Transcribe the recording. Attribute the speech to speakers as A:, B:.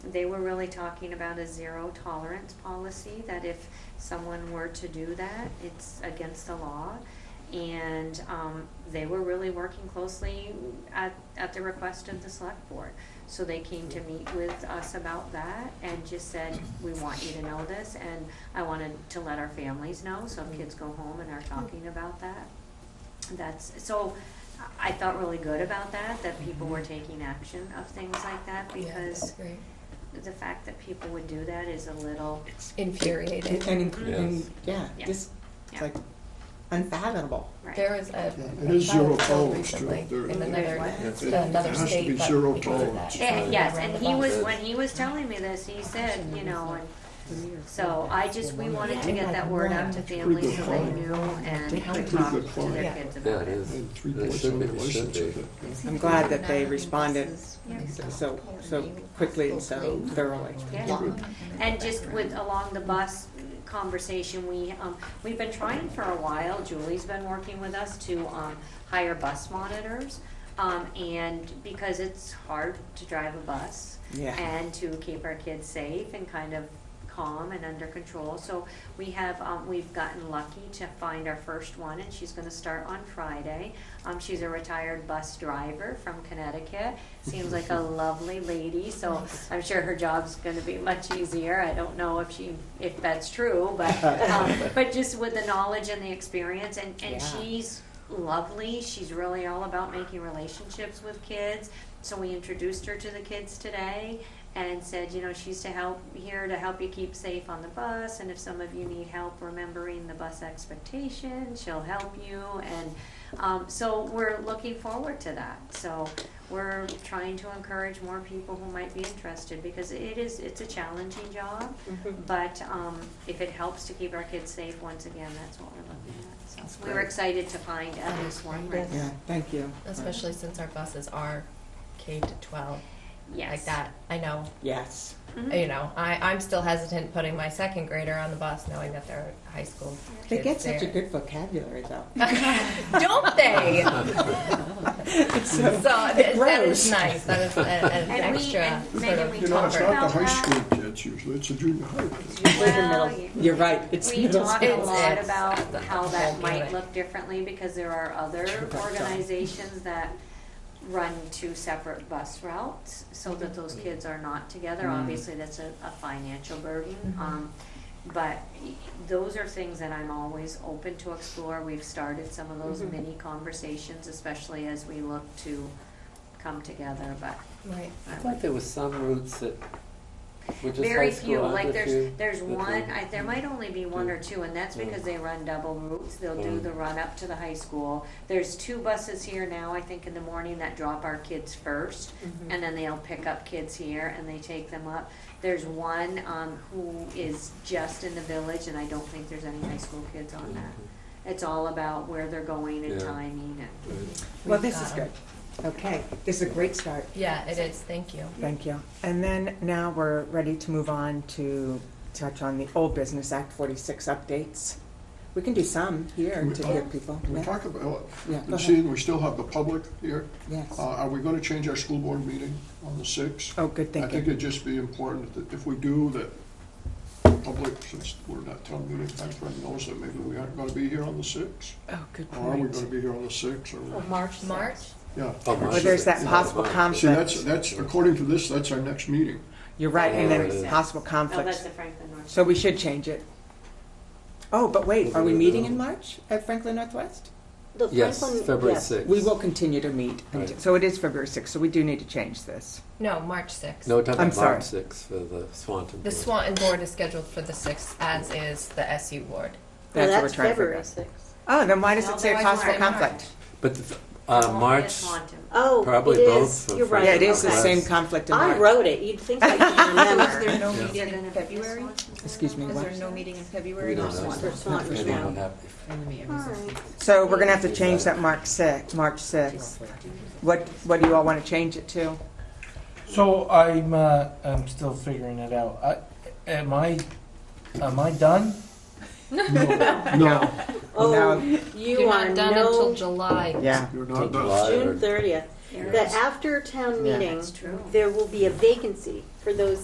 A: They were really talking about a zero tolerance policy, that if someone were to do that, it's against the law. And um, they were really working closely at, at the request of the select board. So they came to meet with us about that and just said, we want you to know this. And I wanted to let our families know, so if kids go home and are talking about that. That's, so I felt really good about that, that people were taking action of things like that
B: Mm-hmm. Yeah,
A: because
B: that's great.
A: the fact that people would do that is a little,
B: infuriating.
C: And,
A: Mhm.
C: and, yeah,
A: Yeah.
C: just,
A: Yeah.
C: it's like unfathomable.
A: right.
B: There was a
D: It is
B: a child
D: zero
B: killed
D: tolerance to
B: recently
D: it. There-
B: in another
D: It it
B: another
D: has to
B: state,
D: be
B: but
D: zero
B: because of
D: tolerance.
B: that.
A: Eh, Yes, and he was,
E: Roundabout.
A: when he was telling me this, he said, you know, and so I just, we wanted to get that word out to families so they knew and could talk to their kids
E: Yeah,
A: about it.
E: it is.
D: And three
E: It
D: points
E: should
D: on
E: be-
D: the
E: it
D: license
E: should
D: of
E: be.
D: it.
C: I'm glad that they responded so, so quickly and so thoroughly.
A: Yeah. And just with, along the bus conversation, we, um, we've been trying for a while, Julie's been working with us to, um, hire bus monitors. Um, and because it's hard to drive a bus.
C: Yeah.
A: And to keep our kids safe and kind of calm and under control. So we have, um, we've gotten lucky to find our first one and she's gonna start on Friday. Um, she's a retired bus driver from Connecticut. Seems like a lovely lady, so I'm sure her job's gonna be much easier. I don't know if she, if that's true, but, um, but just with the knowledge and the experience and, and
C: Yeah.
A: she's lovely. She's really all about making relationships with kids. So we introduced her to the kids today and said, you know, she's to help here to help you keep safe on the bus. And if some of you need help remembering the bus expectation, she'll help you. And um, so we're looking forward to that. So we're trying to encourage more people who might be interested because it is it's a challenging job.
B: Mm-hmm.
A: But um, if it helps to keep our kids safe, once again, that's what we're looking at. So
C: That's
A: we were
C: great.
A: excited to find at least one right
C: Yeah,
A: now.
C: thank you.
B: Especially since our buses are K to twelve,
A: Yes.
B: like that. I know,
C: Yes,
A: Mhm.
B: you know, I, I'm still hesitant putting my second grader on the bus, knowing that they're high school kids
C: they get such a
B: there.
C: good vocabulary though.
B: Don't they?
C: So,
B: So that- that is
C: grows.
B: nice. That is a- an
A: And we-
B: extra
A: and
B: sort
A: Megan,
B: of
A: we
D: You know, it's
A: talked
D: not
A: about
D: the high
A: that.
D: school kids usually, it's the junior high kids.
C: It's in the
A: Well,
C: middle.
A: you-
C: You're right, it's
A: We
C: middle
A: talk a
C: school.
B: It's-
A: lot
B: it's-
A: about how that
B: Won't do
A: might
B: it.
A: look differently because there are other
C: Correct.
A: organizations that run two separate bus routes so that those kids are not together.
C: Mm.
A: Obviously, that's a, a financial burden.
B: Mhm.
A: Um, but those are things that I'm always open to explore. We've started some of those
C: Mhm.
A: mini conversations, especially as we look to come together, but.
B: right.
E: I thought there was some routes that were just high
A: Very
E: school,
A: few,
E: aren't
A: like
E: there
A: there's,
E: few?
A: there's
E: That
A: one,
E: were-
A: I, there might only be one or two, and that's
E: Yeah.
A: because they run double routes, they'll do
E: Yeah.
A: the run up to the high school. There's two buses here now, I think in the morning, that drop our kids first,
C: Mm-hmm.
A: and then they'll pick up kids here and they take them up. There's one, um, who is just in the village, and I don't think there's any high school kids on that. It's all about where they're going and
E: Yeah.
A: timing and.
E: Right.
C: Well,
B: We've
C: this is
B: got
C: good.
B: 'em.
C: Okay, this is a great start.
B: Yeah, it is. Thank you.
C: Thank you. And then now we're ready to move on to touch on the old business Act 46 updates. We can do some here
D: We-
C: to
D: oh,
C: hear people.
D: Can we
C: Yeah.
D: talk about,
C: Yeah, go
D: and
C: ahead.
D: seeing we still have the public here,
C: Yes.
D: uh, are we gonna change our school board meeting on the sixth?
C: Oh, good
D: I think
C: thinking.
D: it'd just be important that if we do, that the public, since we're not town meeting, timeframe knows that maybe we aren't gonna be here on the sixth.
C: Oh, good
D: Or are we
C: point.
D: gonna be here on the Oh, sixth,
C: Oh,
D: or,
B: March. March.
D: yeah.
E: Oh, March
C: Or there's that
E: sixth.
C: possible
E: Yeah.
D: See, that's,
C: conflict.
D: that's, according to this, that's our next meeting.
C: You're right, and
E: Yeah, it
C: then
E: is.
C: possible
A: Oh, that's
C: conflicts.
A: the Franklin North.
C: So we should change it. Oh, but wait, are we
E: We're gonna
C: meeting
E: do-
C: in March at Franklin Northwest?
F: The
E: Yes,
F: Franklin-
E: February
F: yes.
E: 6th.
C: We will continue to meet. until-
E: Right.
C: So it is February 6th, so we do need to change this.
F: Oh,
B: No, March sixth.
E: No, we're talking
C: I'm
E: about
C: sorry.
E: March 6th for the Swanton.
B: The
E: Board.
B: Swanton board is scheduled for the sixth, as is the SU board.
F: No,
C: That's what we're trying
F: that's
C: to figure
F: February
C: out.
F: sixth.
C: Oh, then why does
A: Well,
C: it say
A: there's
C: possible
A: one in
C: conflict?
E: But the- uh, March,
F: Oh,
E: Probably
F: it is.
E: both for
F: You're right.
C: Yeah, it is the
E: Yes.
C: same conflict in
F: I
C: March.
F: wrote it. You'd think I can remember.
G: no
E: Yeah.
G: meeting in February?
C: Excuse me,
G: Is
C: what?
G: there no meeting in
E: we
G: February?
E: don't
F: Swan-
E: know.
F: for Swanton
E: Maybe
F: now.
E: we'll have- if-
F: All right.
C: So we're gonna have to change that March six, March sixth. What, what do you all wanna change it to?
H: So I'm uh, I'm still figuring it out. I, am I am I done?
D: No,
F: Oh,
C: No.
F: you are no
B: July.
C: Yeah,
D: you're
E: till
D: not done.
E: July or-
F: June thirtieth. The after town
C: Yeah.
F: meeting,
A: That's true.
F: there will be a vacancy for those